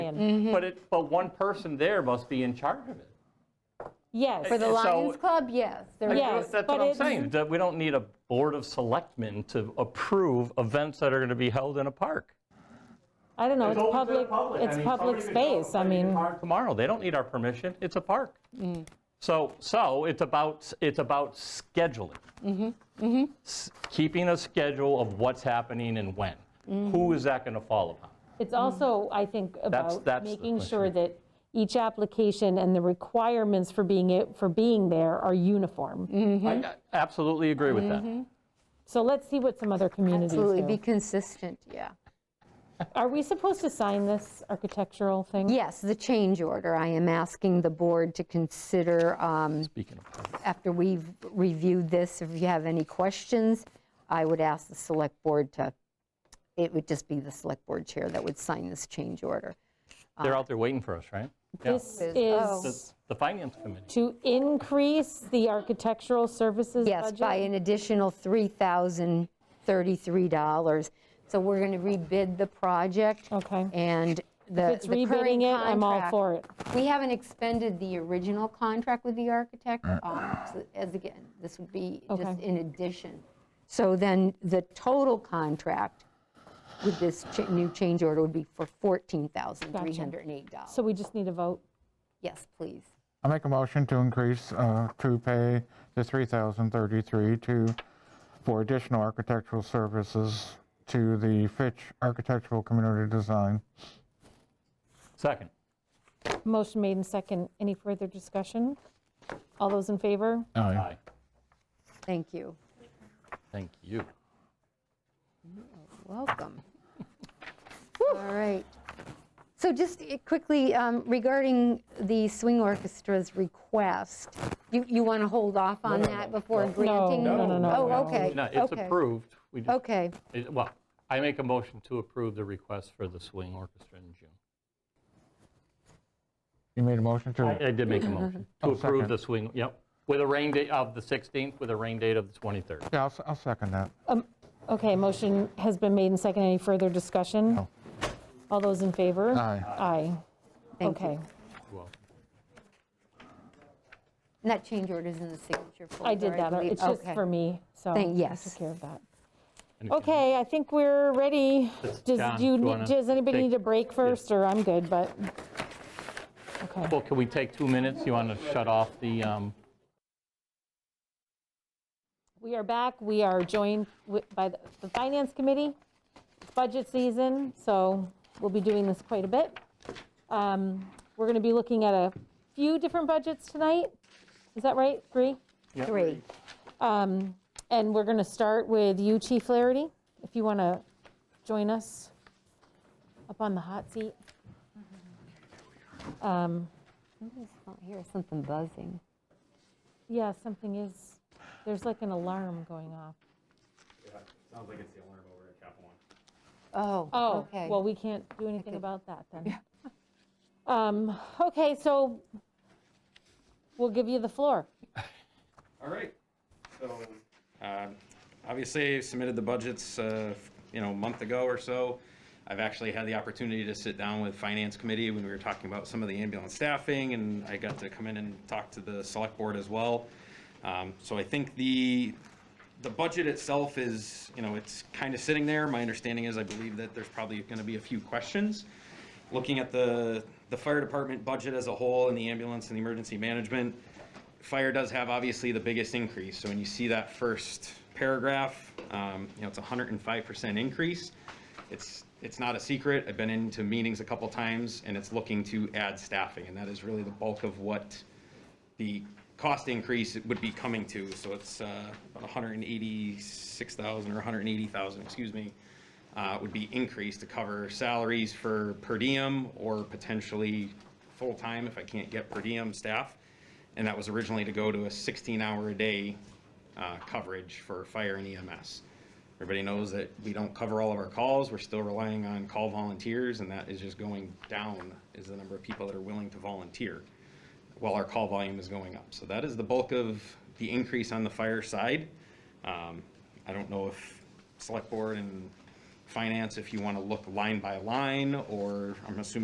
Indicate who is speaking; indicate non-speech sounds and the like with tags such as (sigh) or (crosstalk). Speaker 1: him.
Speaker 2: But it, but one person there must be in charge of it.
Speaker 1: Yes.
Speaker 3: For the
Speaker 2: So-
Speaker 3: Lions Club, yes. there
Speaker 1: Yeah.
Speaker 3: is.
Speaker 1: Yes,
Speaker 2: That's
Speaker 1: but
Speaker 2: what I'm
Speaker 1: it-
Speaker 2: saying, that we don't need a board of selectmen to approve events that are going to be held in a park.
Speaker 1: I don't know, it's
Speaker 2: open to the
Speaker 1: public, it's
Speaker 2: I mean,
Speaker 1: public
Speaker 2: somebody could go
Speaker 1: space,
Speaker 2: play
Speaker 1: I
Speaker 2: in the
Speaker 1: mean, Mm.
Speaker 2: park Tomorrow, they don't need our permission, it's a park. So, so it's about, it's about scheduling.
Speaker 1: Mm-hmm,
Speaker 2: S- Keeping a schedule of what's happening and when.
Speaker 1: Mm-hmm.
Speaker 2: Who is that going to fall upon?
Speaker 1: it's
Speaker 3: Mm-hmm.
Speaker 1: also, I think, about
Speaker 2: that's the
Speaker 1: making sure
Speaker 2: question.
Speaker 1: that each application and the requirements for being, it- for being there are
Speaker 3: Mm-hmm.
Speaker 1: uniform.
Speaker 2: I I absolutely agree with that.
Speaker 1: Mm-hmm. So let's see what some other communities
Speaker 3: Absolutely, be
Speaker 1: do.
Speaker 3: consistent, yeah.
Speaker 1: Are we supposed to sign this architectural thing?
Speaker 3: Yes, the change order, I am asking the board to consider, um,
Speaker 2: Speaking of parks.
Speaker 3: after we've reviewed this, if you have any questions, I would ask the select board to, it would just be the select board chair that would sign this change order.
Speaker 2: They're out there waiting for us, right? Yeah.
Speaker 1: This
Speaker 3: Is- Oh.
Speaker 1: is
Speaker 2: The- The finance committee.
Speaker 1: to increase the architectural services
Speaker 3: Yes,
Speaker 1: budget?
Speaker 3: by an additional $3,033. So we're going to rebid the project.
Speaker 1: Okay.
Speaker 3: And the
Speaker 1: If it's
Speaker 3: the current
Speaker 1: rebidding it, I'm all
Speaker 3: contract-
Speaker 1: for it.
Speaker 3: We haven't expended the original contract with the architect, um, so as again, this would be just
Speaker 1: Okay.
Speaker 3: in addition. So then the total contract with this cha- new change order would be for $14,308.
Speaker 1: So we just need a vote.
Speaker 3: Yes, please.
Speaker 4: I make a motion to increase, uh, to pay the 3,033 to, for additional architectural services to the Fitch Architectural Community Design.
Speaker 2: Second.
Speaker 1: Motion made and second. Any further discussion? All those in favor?
Speaker 2: Aye.
Speaker 3: Thank you.
Speaker 2: Thank you.
Speaker 1: (laughs)
Speaker 3: Welcome. All right. So just i- quickly, um, regarding the swing orchestra's request, you, you want to hold off on that before granting?
Speaker 1: No, no, no, no.
Speaker 3: Oh, okay.
Speaker 2: No, it's
Speaker 3: okay,
Speaker 2: approved. We just-
Speaker 3: Okay,
Speaker 2: it- Well, I make a motion to approve the request for the swing orchestra in June.
Speaker 4: You made a motion to,
Speaker 2: I did make a motion to
Speaker 4: (laughs) Oh,
Speaker 2: approve
Speaker 4: second.
Speaker 2: the swing, yep, with a rain date of the 16th, with a rain date of the 23rd.
Speaker 4: yeah, I'll s- I'll second that.
Speaker 1: Okay, motion has been made and second. Any further discussion?
Speaker 4: No.
Speaker 1: All those in favor?
Speaker 4: Aye.
Speaker 1: Aye.
Speaker 3: thank you.
Speaker 1: Okay.
Speaker 2: Well,
Speaker 3: And that change order is in the signature folder.
Speaker 1: I did that.
Speaker 3: believe.
Speaker 1: It's just
Speaker 3: Okay.
Speaker 1: for me, so.
Speaker 3: Thank-
Speaker 1: I
Speaker 3: yes.
Speaker 1: Took care of that.
Speaker 2: and-
Speaker 1: Okay, I think we're ready.
Speaker 2: Does-
Speaker 1: Does,
Speaker 2: John,
Speaker 1: do you,
Speaker 2: do you
Speaker 1: need-
Speaker 2: wanna
Speaker 1: does anybody
Speaker 2: take-
Speaker 1: need a break first, or I'm good, but, okay.
Speaker 2: Well, can we take two minutes? You want to shut off the, um,
Speaker 1: We are back. We are joined wi- by the the Finance Committee. It's budget season, so we'll be doing this quite a bit. Um, We're going to be looking at a few different budgets tonight. Is that right? Three?
Speaker 3: Three.
Speaker 1: Um, And we're going to start with you, Chief Flaherty, if you want to join us up on the hot seat. Um,
Speaker 3: oh, Here's something buzzing.
Speaker 1: Yeah, something is, there's like an alarm going off.
Speaker 5: Sounds like it's the alarm over at Chapel One.
Speaker 3: Oh,
Speaker 1: Oh,
Speaker 3: okay.
Speaker 1: well, we can't do anything about that then. (laughs) Um, Okay, so we'll give you the floor.
Speaker 5: All right. So, um, obviously submitted the budgets, uh, you know, a month ago or so. I've actually had the opportunity to sit down with finance committee when we were talking about some of the ambulance staffing and I got to come in and talk to the select board as well. Um, so I think the, the budget itself is, you know, it's kind of sitting there. My understanding is I believe that there's probably going to be a few questions. Looking at the, the fire department budget as a whole and the ambulance and the emergency management, fire does have obviously the biggest increase. So when you see that first paragraph, um, you know, it's a hundred and five percent increase. It's, it's not a secret. I've been into meetings a couple times and it's looking to add staffing. And that is really the bulk of what the cost increase would be coming to. So it's uh, about 186,000 or 180,000, excuse me, uh, would be increased to cover salaries for per diem or potentially full-time if I can't get per diem staff. And that was originally to go to a 16-hour-a-day coverage for fire and EMS. Everybody knows that we don't cover all of our calls. We're still relying on call volunteers, and that is just going down, is the number of people that are willing to volunteer while our call volume is going up. So that is the bulk of the increase on the fire side. Um, I don't know if select board and finance, if you want to look line by line, or I'm assuming